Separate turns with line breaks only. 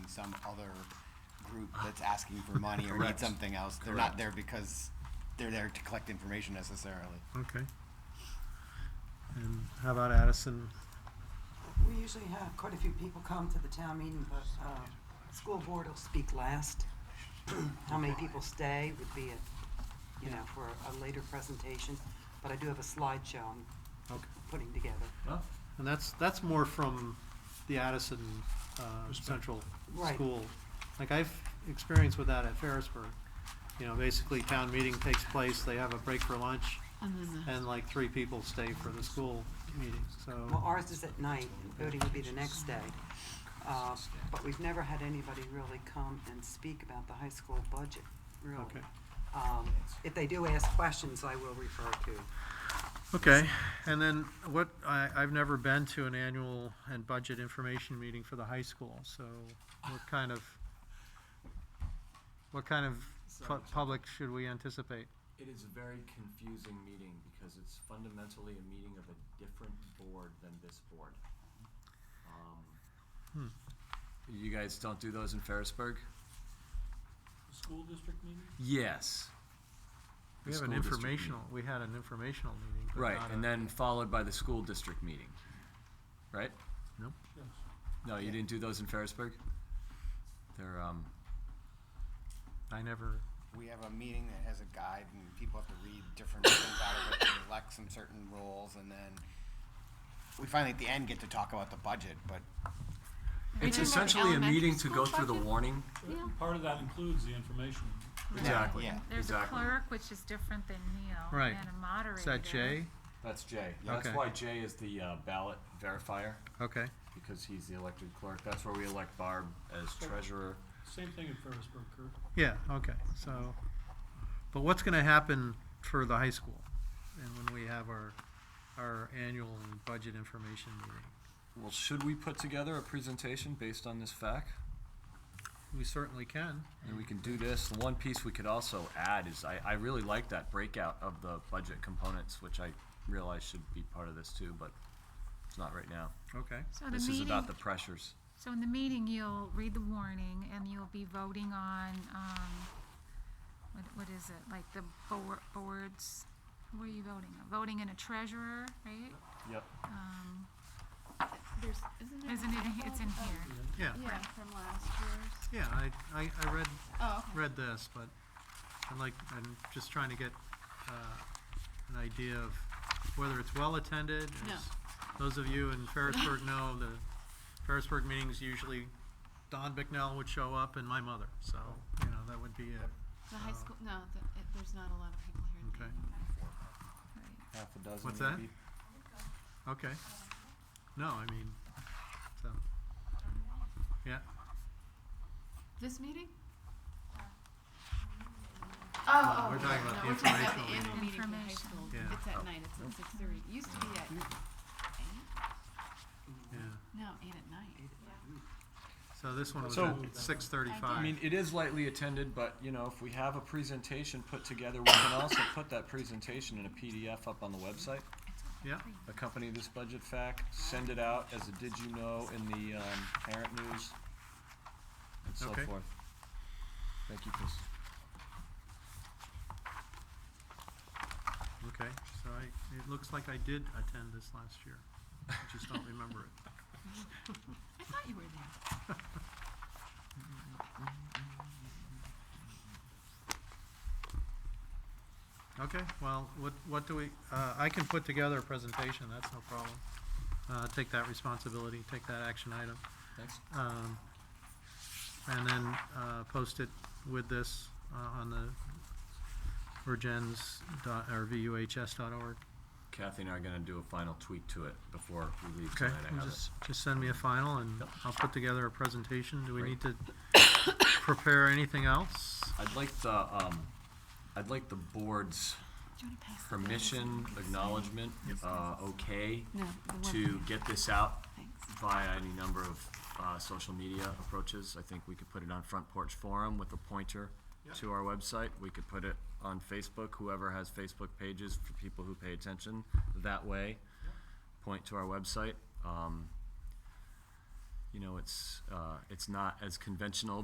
some other group that's asking for money or
Correct.
needs something else. They're
Correct.
not there because they're there to collect information necessarily.
Okay. And how about Addison?
We usually have quite a few people come to the town meeting, but uh, school board will speak last. How many people stay would be, a- you know, for a later presentation, but I do have a slideshow I'm
Okay.
putting together.
Well,
And that's, that's more from the Addison, uh,
Perspective.
Central
Right.
School. Like I've experienced with that at Ferrisburg. You know, basically town meeting takes place, they have a break for lunch,
And then the,
and like three people stay for the school meeting,
Well,
so.
ours is at night, and voting would be the next day. Uh, But we've never had anybody really come and speak about the high school budget, really.
Okay.
Um, If they do ask questions, I will refer to
Okay, and then what, I, I've never been to an annual and budget information meeting for the high school, so what kind of, what kind of pu- public should we anticipate?
it is a very confusing meeting because it's fundamentally a meeting of a different board than this board. Um,
Hmm.
You guys don't do those in Ferrisburg?
School district meeting?
Yes.
We
The
have an
school district meeting.
informational, we had an informational meeting. but
Right,
not
and
a-
then followed by the school district meeting, right?
Nope.
Yes.
No, you didn't do those in Ferrisburg? They're, um,
I never,
We have a meeting that has a guide and people have to read different things out of it and elect some certain roles and then we finally at the end get to talk about the budget, but
We
it's
didn't have the
essentially a
elementary
meeting to
school
go through the
budget?
warning.
Yeah.
Part of that includes the information.
Exactly,
Yeah.
there's a
exactly.
clerk, which is different than Neil,
Right.
and a moderator.
is that Jay?
That's Jay.
That's Okay. why
Jay is the
uh,
ballot verifier,
Okay,
because he's the elected clerk. That's where we elect Barb as treasurer.
Same thing in Ferrisburg, Kurt.
yeah, okay, so, but what's gonna happen for the high school? And when we have our, our annual and budget information meeting?
Well, should we put together a presentation based on this fact?
We certainly can.
And we can do this. The one piece we could also add is I, I really like that breakout of the budget components, which I realize should be part of this too, but it's not right now.
Okay,
So the
This is
meeting,
about the pressures.
so in the meeting, you'll read the warning and you'll be voting on, um, what, what is it, like the board, boards, who are you voting on? Voting in a treasurer, right?
Yep.
Um,
There's, isn't it?
isn't it, it's in here.
yeah,
Yeah, from last year's.
yeah, I, I, I read,
Oh, okay.
read this, but I'm like, I'm just trying to get, uh, an idea of whether it's well-attended.
No.
as Those of you in Ferrisburg know, the Ferrisburg meetings usually, Don Bicknell would show up and my mother, so, you know, that would be it,
The high
Oh.
school, no, the, it, there's not a lot of people here.
okay,
Right.
Half a dozen
What's that? maybe. okay. No, I mean, so, yeah,
This meeting? Oh,
No,
oh,
we're
yeah,
talking about
no,
the
we're talking about
informational
the annual meeting for the high
Information.
school.
Yeah. Oh.
It's at night, it's at six thirty. It used to be at eight?
yeah.
No, eight at night.
So this one was
So-
at six thirty-five.
I mean, it is lightly attended, but you know, if we have a presentation put together, we can also put that presentation in a PDF up on the website.
Yeah,
Accompany this budget fact, send it out as a did you know in the, um, parent news and so
Okay.
forth. Thank you, Chris.
okay, so I, it looks like I did attend this last year, I just don't remember it.
I thought you were there.
Okay, well, what, what do we, uh, I can put together a presentation, that's no problem. Uh, take that responsibility, take that action item,
Thanks.
um, and then, uh, post it with this, uh, on the virgens dot, or vuhs dot org.
Kathy and I are gonna do a final tweak to it before we leave
Okay,
tonight. I
and
have it.
just, just send me a final and
Yep.
I'll put together a presentation. Do we
Great.
need to prepare anything else?
I'd like the, um, I'd like the board's
Do you wanna pass? the bills?
permission, acknowledgement, uh, okay,
No, the one.
to get this out
Thanks.
via any number of, uh, social media approaches. I think we could put it on Front Porch Forum with a pointer to our website. We could put it on Facebook, whoever has Facebook pages for people who pay attention that way. Point to our website. Um, you know, it's, uh, it's not as conventional,